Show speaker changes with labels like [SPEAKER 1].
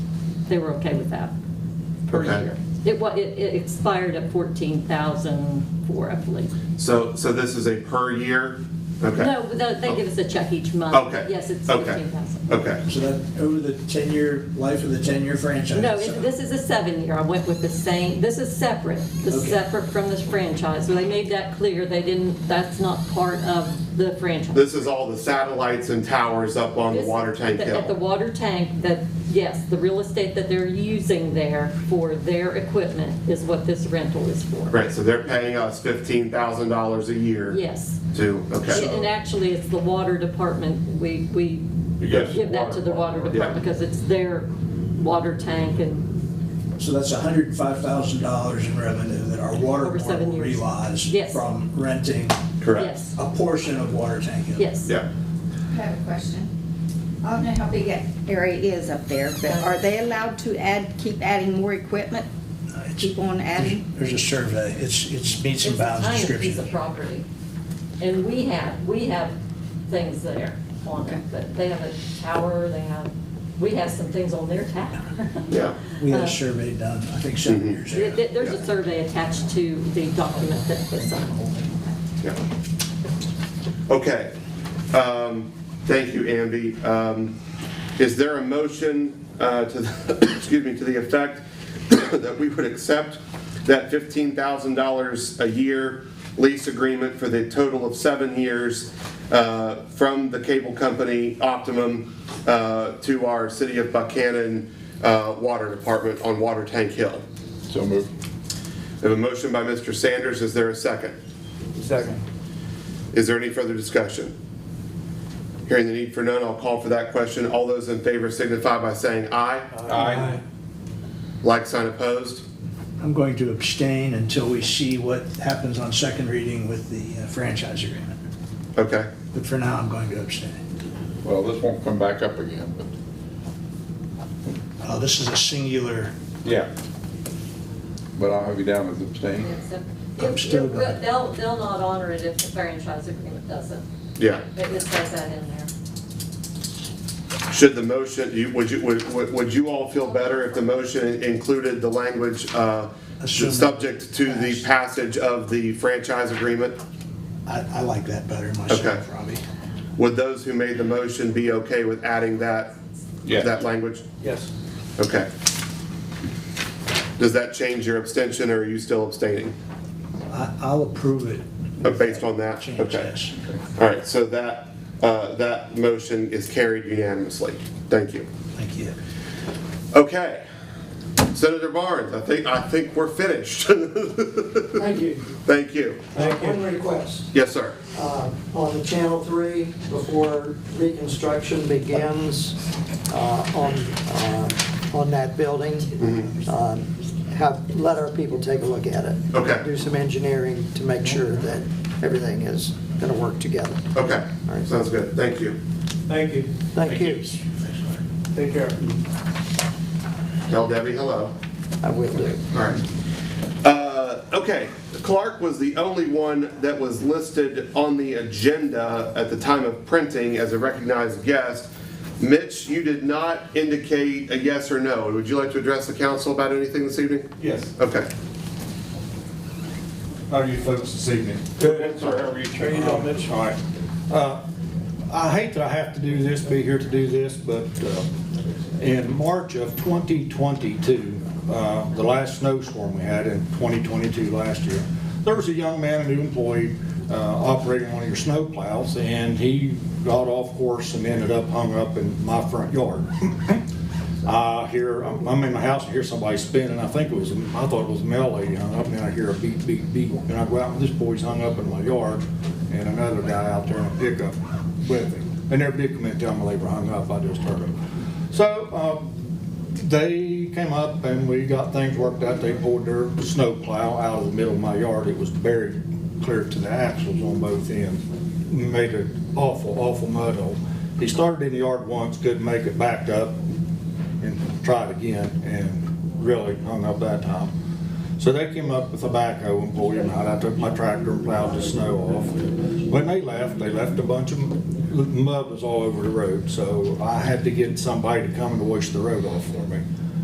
[SPEAKER 1] they were okay with that per
[SPEAKER 2] Okay.
[SPEAKER 1] year. It wa, it it expired at 14,004, I believe.
[SPEAKER 2] So, so this is a per year? Okay.
[SPEAKER 1] No, they they give us a check each month.
[SPEAKER 2] Okay.
[SPEAKER 1] Yes, it's
[SPEAKER 2] Okay.
[SPEAKER 1] 14,000.
[SPEAKER 2] Okay.
[SPEAKER 3] So that, over the ten-year life of the ten-year franchise.
[SPEAKER 1] No, it- this is a seven-year. I went with the same, this is separate. This is
[SPEAKER 3] Okay.
[SPEAKER 1] separate from this franchise. So they made that clear. They didn't, that's not part of the franchise.
[SPEAKER 2] This is all the satellites and towers up on the
[SPEAKER 1] This-
[SPEAKER 2] water tank
[SPEAKER 1] at the- At the
[SPEAKER 2] hill?
[SPEAKER 1] water tank, that, yes, the real estate that they're using there for their equipment is what this rental is for.
[SPEAKER 2] Right, so they're paying us $15,000 a year?
[SPEAKER 1] Yes.
[SPEAKER 2] To, okay.
[SPEAKER 1] And actually, it's the water department, we, we
[SPEAKER 4] Yes.
[SPEAKER 1] give that to the water department because it's their water tank and,
[SPEAKER 3] So that's hundred and five thousand dollars in revenue that our water
[SPEAKER 1] Over
[SPEAKER 3] board
[SPEAKER 1] seven
[SPEAKER 3] will
[SPEAKER 1] years.
[SPEAKER 3] realize
[SPEAKER 1] Yes.
[SPEAKER 3] from renting
[SPEAKER 2] Correct.
[SPEAKER 1] yes,
[SPEAKER 3] a portion of Water Tank Hill.
[SPEAKER 1] yes.
[SPEAKER 2] Yeah.
[SPEAKER 5] I have a question. I don't know how big that area is up there, but are they allowed to add, keep adding more equipment?
[SPEAKER 3] Uh, it's-
[SPEAKER 5] Keep on adding?
[SPEAKER 3] There's a survey, it's, it's meets and
[SPEAKER 1] It's a
[SPEAKER 3] bounds
[SPEAKER 1] tiny piece of
[SPEAKER 3] description.
[SPEAKER 1] property. And we have, we have things there on it, but they have a tower, they have, we have some things on their tower.
[SPEAKER 2] Yeah.
[SPEAKER 3] We had
[SPEAKER 1] Uh,
[SPEAKER 3] a survey done, I think, seven years
[SPEAKER 1] There-
[SPEAKER 3] ago.
[SPEAKER 1] there- There's a survey attached to the document that was signed.
[SPEAKER 2] Yeah. Okay. Um, Thank you, Amby. Um, Is there a motion uh, to, the- excuse me, to the effect that we would accept that $15,000 a year lease agreement for the total of seven years uh, from the cable company Optimum uh, to our City of Buchanan uh, Water Department on Water Tank Hill?
[SPEAKER 4] So moved.
[SPEAKER 2] We have a motion by Mr. Sanders. Is there a second?
[SPEAKER 3] Second.
[SPEAKER 2] Is there any further discussion? Hearing the need for none, I'll call for that question. All those in favor signify by saying aye.
[SPEAKER 4] Aye.
[SPEAKER 2] Like sign opposed?
[SPEAKER 3] I'm going to abstain until we see what happens on second reading with the uh, franchise agreement.
[SPEAKER 2] Okay.
[SPEAKER 3] But for now, I'm going to abstain.
[SPEAKER 4] Well, this won't come back up again, but.
[SPEAKER 3] Uh, This is a singular,
[SPEAKER 4] Yeah. But I'll have you down as abstaining.
[SPEAKER 3] I'm still gonna-
[SPEAKER 1] They'll, they'll not honor it if the franchise agreement doesn't.
[SPEAKER 2] Yeah.
[SPEAKER 1] It just says that in there.
[SPEAKER 2] Should the motion, you- would you, would- would would you all feel better if the motion included the language uh,
[SPEAKER 3] Assuming-
[SPEAKER 2] subject to the passage of the franchise agreement?
[SPEAKER 3] I, I like that better
[SPEAKER 2] Okay.
[SPEAKER 3] myself, Robbie.
[SPEAKER 2] Would those who made the motion be okay with adding that,
[SPEAKER 4] Yeah.
[SPEAKER 2] that language?
[SPEAKER 3] Yes.
[SPEAKER 2] Okay. Does that change your abstention, or are you still abstaining?
[SPEAKER 3] I, I'll approve it.
[SPEAKER 2] Uh, Based on that?
[SPEAKER 3] Change,
[SPEAKER 2] Okay.
[SPEAKER 3] yes.
[SPEAKER 2] All right, so that, uh, that motion is carried unanimously. Thank you.
[SPEAKER 3] Thank you.
[SPEAKER 2] Okay. Senator Barnes, I think, I think we're finished.
[SPEAKER 6] Thank you.
[SPEAKER 2] Thank you.
[SPEAKER 6] One request,
[SPEAKER 2] Yes, sir.
[SPEAKER 6] uh, on the Channel 3, before reconstruction begins uh, on, uh, on that building, um, have, let our people take a look at it.
[SPEAKER 2] Okay.
[SPEAKER 6] Do some engineering to make sure that everything is going to work together.
[SPEAKER 2] Okay,
[SPEAKER 6] All right.
[SPEAKER 2] sounds good. Thank you.
[SPEAKER 7] Thank you.
[SPEAKER 6] Thank you.
[SPEAKER 7] Take care.
[SPEAKER 2] Tell Debbie hello.
[SPEAKER 6] I will do.
[SPEAKER 2] All right. Uh, Okay, Clark was the only one that was listed on the agenda at the time of printing as a recognized guest. Mitch, you did not indicate a yes or no. Would you like to address the council about anything this evening?
[SPEAKER 8] Yes,
[SPEAKER 2] Okay.
[SPEAKER 8] how are you folks this evening?
[SPEAKER 4] Good, sir, how are you?
[SPEAKER 8] How you doing, Mitch? All right. Uh, I hate that I have to do this, be here to do this, but uh, in March of 2022, uh, the last snowstorm we had in 2022 last year, there was a young man, a new employee, uh, operating one of your snow plows, and he got off course and ended up hung up in my front yard. I hear, I'm I'm in my house, I hear somebody spinning, I think it was, I thought it was a mail lady hung up, and then I hear a beep, beep, beep, and I go out, and this boy's hung up in my yard, and another guy out there in a pickup with him. They never did come in and tell me they were hung up, I just heard them. So, um, they came up and we got things worked out, they pulled their snow plow out of the middle of my yard, it was buried clear to the axles on both ends, made an awful, awful mud hole. He started in the yard once, couldn't make it, backed up, and tried again and really hung up that time. So they came up with a backhoe and pulled him out. I took my tractor and plowed the snow off. When they left, they left a bunch of mud was all over the road, so I had to get somebody to come and wash the road off for me.